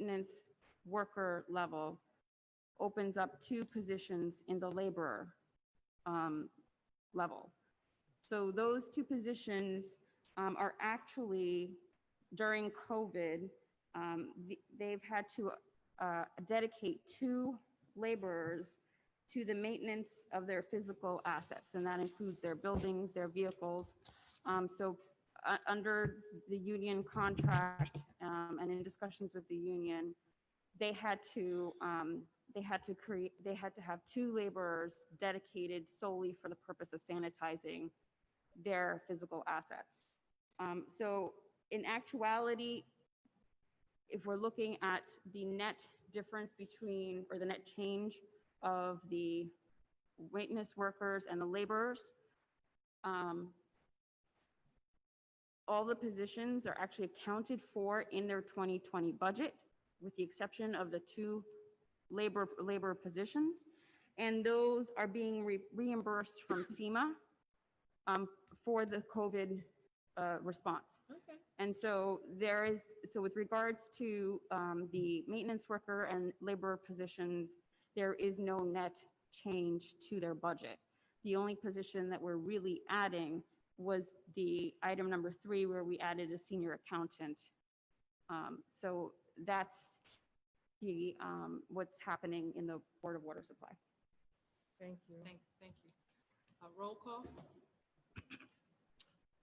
maintenance worker level opens up two positions in the laborer um, level. So those two positions um, are actually, during COVID, um, th- they've had to uh, dedicate two laborers to the maintenance of their physical assets, and that includes their buildings, their vehicles. Um, So uh, under the union contract um, and in discussions with the union, they had to, um, they had to create, they had to have two laborers dedicated solely for the purpose of sanitizing their physical assets. Um, So in actuality, if we're looking at the net difference between, or the net change of the witness workers and the laborers, um, all the positions are actually accounted for in their 2020 budget, with the exception of the two labor, labor positions. And those are being re- reimbursed from FEMA um, for the COVID uh, response. Okay. And so there is, so with regards to um, the maintenance worker and laborer positions, there is no net change to their budget. The only position that we're really adding was the item number three, where we added a senior accountant. Um, So that's the, um, what's happening in the Board of Water Supply. Thank you. Thank, thank you. Uh, Roll call?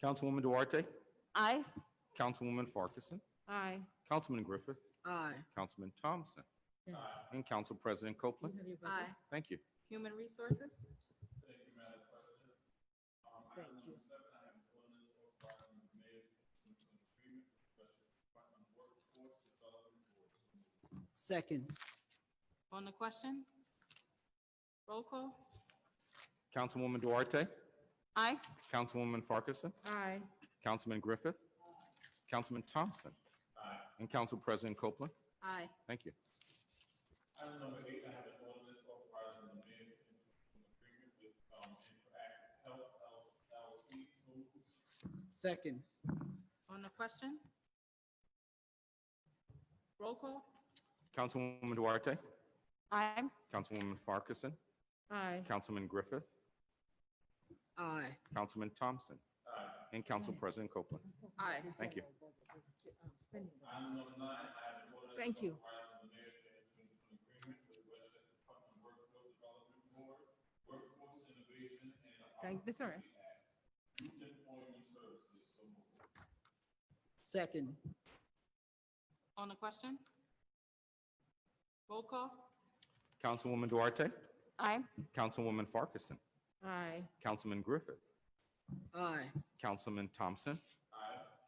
Councilwoman Duarte, Aye. Councilwoman Farkason, Aye. Councilman Griffith, Aye. Councilman Thompson, Yeah. and Council President Copeland. Aye. Thank you. Human Resources? Second. On the question? Roll call? Councilwoman Duarte, Aye. Councilwoman Farkason, Aye. Councilman Griffith, Councilman Thompson, and Council President Copeland. Aye. Thank you. Second. On the question? Roll call? Councilwoman Duarte, Aye. Councilwoman Farkason, Aye. Councilman Griffith, Aye. Councilman Thompson, and Council President Copeland. Aye. Thank you. Thank you. Thank, that's all right. Second. On the question? Roll call? Councilwoman Duarte, Aye. Councilwoman Farkason, Aye. Councilman Griffith, Aye. Councilman Thompson.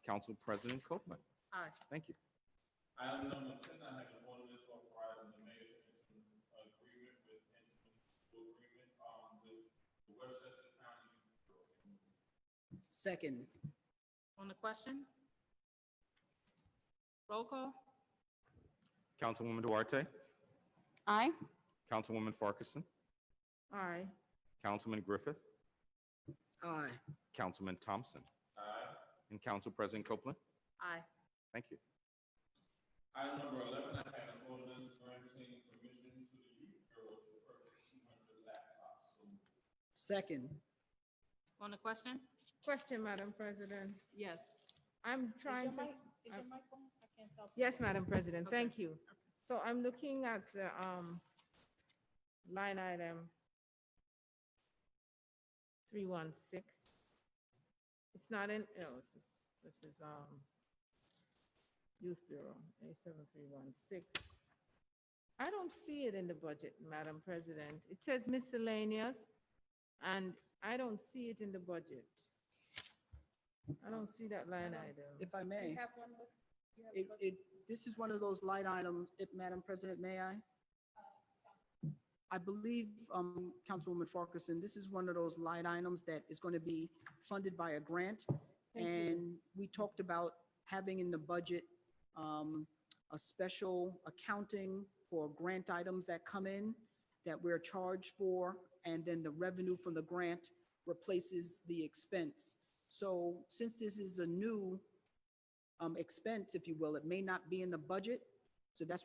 Council President Copeland. Aye. Thank you. Second. On the question? Roll call? Councilwoman Duarte, Aye. Councilwoman Farkason, Aye. Councilman Griffith, Aye. Councilman Thompson. And Council President Copeland. Aye. Thank you. Second. On the question? Question, Madam President. Yes. I'm trying to. I- Yes, Madam President, Okay. thank you. So I'm looking at the um, line item 316. It's not in, oh, this is, this is um, Youth Bureau, A7316. I don't see it in the budget, Madam President. It says miscellaneous, and I don't see it in the budget. I don't see that line item. If I may. It, it, this is one of those light items, if, Madam President, may I? I believe, um, Councilwoman Farkason, this is one of those light items that is going to be funded by a grant. Thank you. And we talked about having in the budget, um, a special accounting for grant items that come in that we're charged for, and then the revenue from the grant replaces the expense. So since this is a new, um, expense, if you will, it may not be in the budget. So that's why.